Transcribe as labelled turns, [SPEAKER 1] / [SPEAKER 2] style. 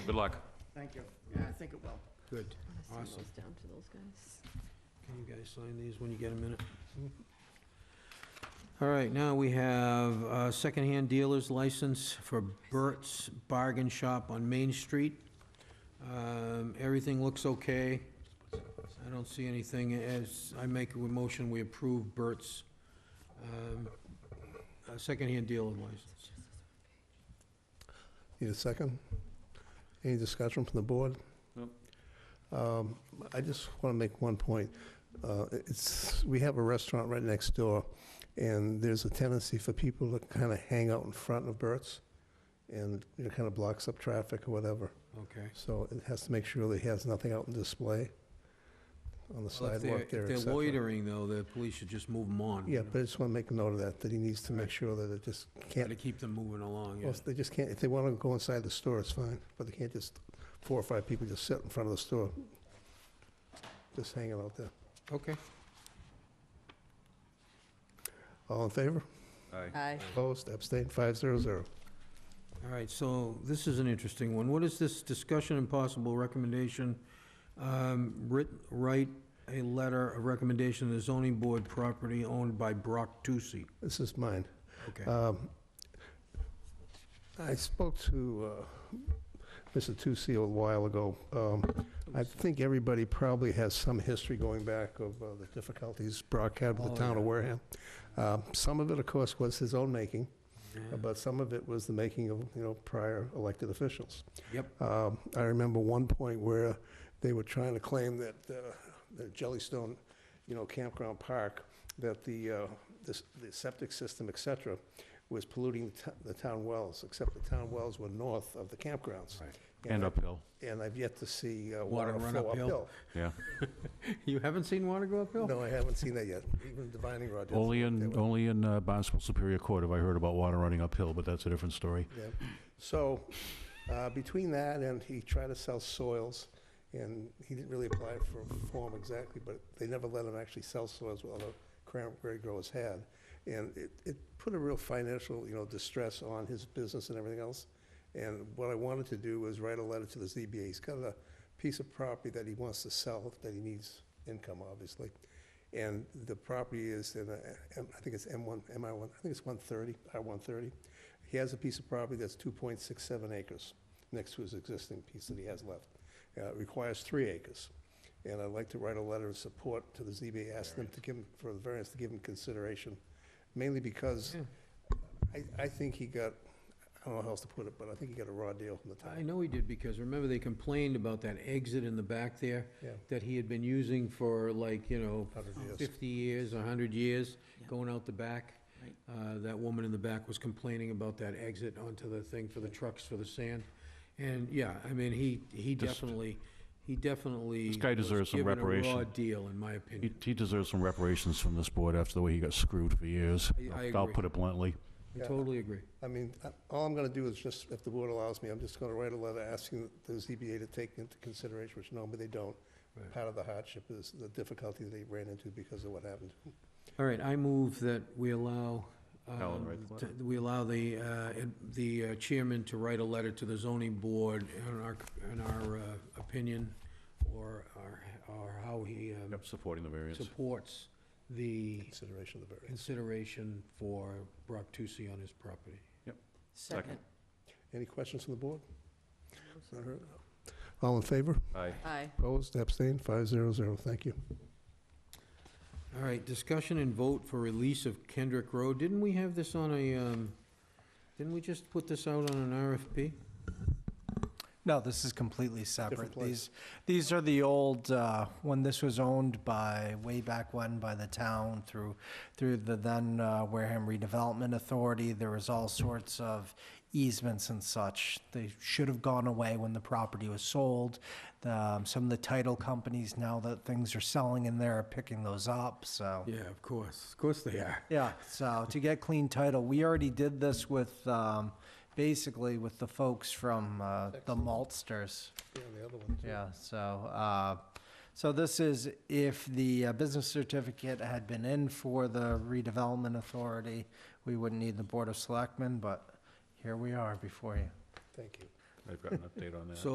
[SPEAKER 1] Good luck.
[SPEAKER 2] Thank you. Yeah, I think it will.
[SPEAKER 3] Good.
[SPEAKER 4] I'll send
[SPEAKER 3] Awesome.
[SPEAKER 4] those down to those guys.
[SPEAKER 3] Can you guys sign these when you get a minute? All right, now we have uh, secondhand dealer's license for Burt's Bargain Shop on Main Street. Um, Everything looks okay. I don't see anything as, I make a motion, we approve Burt's um, uh, secondhand dealer license.
[SPEAKER 5] Need a second? Any discussion from the board?
[SPEAKER 1] No.
[SPEAKER 5] Um, I just want to make one point. Uh, It's, we have a restaurant right next door, and there's a tendency for people to kind of hang out in front of Burt's, and it kind of blocks up traffic or whatever.
[SPEAKER 3] Okay.
[SPEAKER 5] So it has to make sure that he has nothing out in display on the
[SPEAKER 3] Well, if they're-
[SPEAKER 5] sidewalk there, et
[SPEAKER 3] If they're
[SPEAKER 5] cetera.
[SPEAKER 3] loitering, though, the police should just move them on. you
[SPEAKER 5] Yeah,
[SPEAKER 3] know,
[SPEAKER 5] but I just want to make note of that, that he needs to make sure that it just
[SPEAKER 3] Try
[SPEAKER 5] can't
[SPEAKER 3] to keep them moving along, yeah.
[SPEAKER 5] Well, they just can't, if they want to go inside the store, it's fine, but they can't just, four or five people just sit in front of the store, just hanging out there.
[SPEAKER 3] Okay.
[SPEAKER 5] All in favor?
[SPEAKER 1] Aye.
[SPEAKER 4] Aye.
[SPEAKER 5] Opposed? Abstained? Five zero zero.
[SPEAKER 3] All right, so this is an interesting one. What is this discussion and possible recommendation? Um, writ- Write a letter of recommendation to the zoning board property owned by Brock Tusi.
[SPEAKER 5] This is mine.
[SPEAKER 3] Okay,
[SPEAKER 5] Um, I spoke to uh, Mr. Tucci a while ago. Um, I think everybody probably has some history going back of uh, the difficulties Brock had with
[SPEAKER 3] Oh,
[SPEAKER 5] the town of
[SPEAKER 3] yeah.
[SPEAKER 5] Wareham. Um, Some of it, of course, was his own making,
[SPEAKER 3] Yeah.
[SPEAKER 5] but some of it was the making of, you know, prior elected officials.
[SPEAKER 3] Yep.
[SPEAKER 5] Um, I remember one point where they were trying to claim that uh, the Jellystone, you know, Campground Park, that the, uh, the s- the septic system, et cetera, was polluting the to- the town wells, except the town wells were north of the campgrounds.
[SPEAKER 3] Right.
[SPEAKER 1] And
[SPEAKER 5] I-
[SPEAKER 1] uphill,
[SPEAKER 5] And I've yet to see uh,
[SPEAKER 3] Water
[SPEAKER 5] water
[SPEAKER 3] run
[SPEAKER 5] flow
[SPEAKER 3] uphill?
[SPEAKER 5] uphill.
[SPEAKER 1] yeah.
[SPEAKER 3] You haven't seen water go uphill?
[SPEAKER 5] No, I haven't seen that yet, even divining rod. didn't
[SPEAKER 6] Only
[SPEAKER 5] work that
[SPEAKER 6] in,
[SPEAKER 5] way.
[SPEAKER 6] only in uh, Barnstable Superior Court have I heard about water running uphill, but that's a different story.
[SPEAKER 5] Yeah. So, uh, between that and he tried to sell soils, and he didn't really apply for a form exactly, but they never let him actually sell soils, well, the cranberry growers had. And it, it put a real financial, you know, distress on his business and everything else. And what I wanted to do was write a letter to the ZBA. He's got a piece of property that he wants to sell, that he needs income, obviously. And the property is in, a- M- I think it's M1, MI1, I think it's 130, R130. He has a piece of property that's 2.67 acres next to his existing piece that he has left. Uh, It requires three acres. And I'd like to write a letter of support to the ZBA, ask them to give, him for the variance, to give him consideration, mainly because
[SPEAKER 3] Yeah.
[SPEAKER 5] I, I think he got, I don't know how else to put it, but I think he got a raw deal from the
[SPEAKER 3] I
[SPEAKER 5] town.
[SPEAKER 3] know he did, because remember, they complained about that exit in the back there
[SPEAKER 5] Yeah.
[SPEAKER 3] that he had been using for like, you know,
[SPEAKER 5] 100 years.
[SPEAKER 3] 50 years, 100 years,
[SPEAKER 4] Yeah.
[SPEAKER 3] going out the back.
[SPEAKER 4] Right.
[SPEAKER 3] Uh, That woman in the back was complaining about that exit onto the thing for the trucks for the sand. And, yeah, I mean, he, he
[SPEAKER 6] Just-
[SPEAKER 3] definitely, he definitely.
[SPEAKER 6] This guy
[SPEAKER 3] was
[SPEAKER 6] deserves some
[SPEAKER 3] Given a raw
[SPEAKER 6] reparation.
[SPEAKER 3] deal, in my
[SPEAKER 6] He,
[SPEAKER 3] opinion.
[SPEAKER 6] he deserves some reparations from this board after the way he got screwed for years.
[SPEAKER 3] I- I
[SPEAKER 6] I'll- I'll
[SPEAKER 3] agree.
[SPEAKER 6] put it bluntly.
[SPEAKER 3] I
[SPEAKER 5] Yeah.
[SPEAKER 3] totally agree.
[SPEAKER 5] I mean, uh, all I'm gonna do is just, if the board allows me, I'm just gonna write a letter asking the ZBA to take into consideration, which normally they don't.
[SPEAKER 3] Right.
[SPEAKER 5] Part of the hardship is the difficulty they ran into because of what happened.
[SPEAKER 3] All right, I move that we allow,
[SPEAKER 1] Alan,
[SPEAKER 3] um,
[SPEAKER 1] write the
[SPEAKER 3] t- we allow the, uh, ad- the uh, chairman to write a letter to the zoning board in our, in our uh, opinion, or, our- or how he um,
[SPEAKER 1] Yep, supporting the variance.
[SPEAKER 3] supports the
[SPEAKER 5] Consideration of the variance.
[SPEAKER 3] consideration for Brock Tusi on his property.
[SPEAKER 1] Second.
[SPEAKER 5] Any questions from the board? Not heard? All in favor?
[SPEAKER 1] Aye.
[SPEAKER 4] Aye.
[SPEAKER 5] Opposed? Abstained? Five zero zero. Thank you.
[SPEAKER 3] All right, discussion and vote for release of Kendrick Road. Didn't we have this on a, um, didn't we just put this out on an RFP?
[SPEAKER 7] No, this is completely
[SPEAKER 5] Different
[SPEAKER 7] separate.
[SPEAKER 5] place.
[SPEAKER 7] These, these are the old, uh, when this was owned by, way back when, by the town through, through the then uh, Wareham Redevelopment Authority. There was all sorts of easements and such. They should have gone away when the property was sold. Um, Some of the title companies, now that things are selling in there, are picking those up, so.
[SPEAKER 3] Yeah, of course, of course they are.
[SPEAKER 7] Yeah, so to get clean title, we already did this with, um, basically with the folks from uh, the maltsters.
[SPEAKER 5] Yeah, the other one. too.
[SPEAKER 7] Yeah, so, uh, so this is if the uh, business certificate had been in for the redevelopment authority, we wouldn't need the Board of Selectmen, but here we are before you.
[SPEAKER 5] Thank you.
[SPEAKER 1] I've got an update on that.
[SPEAKER 3] So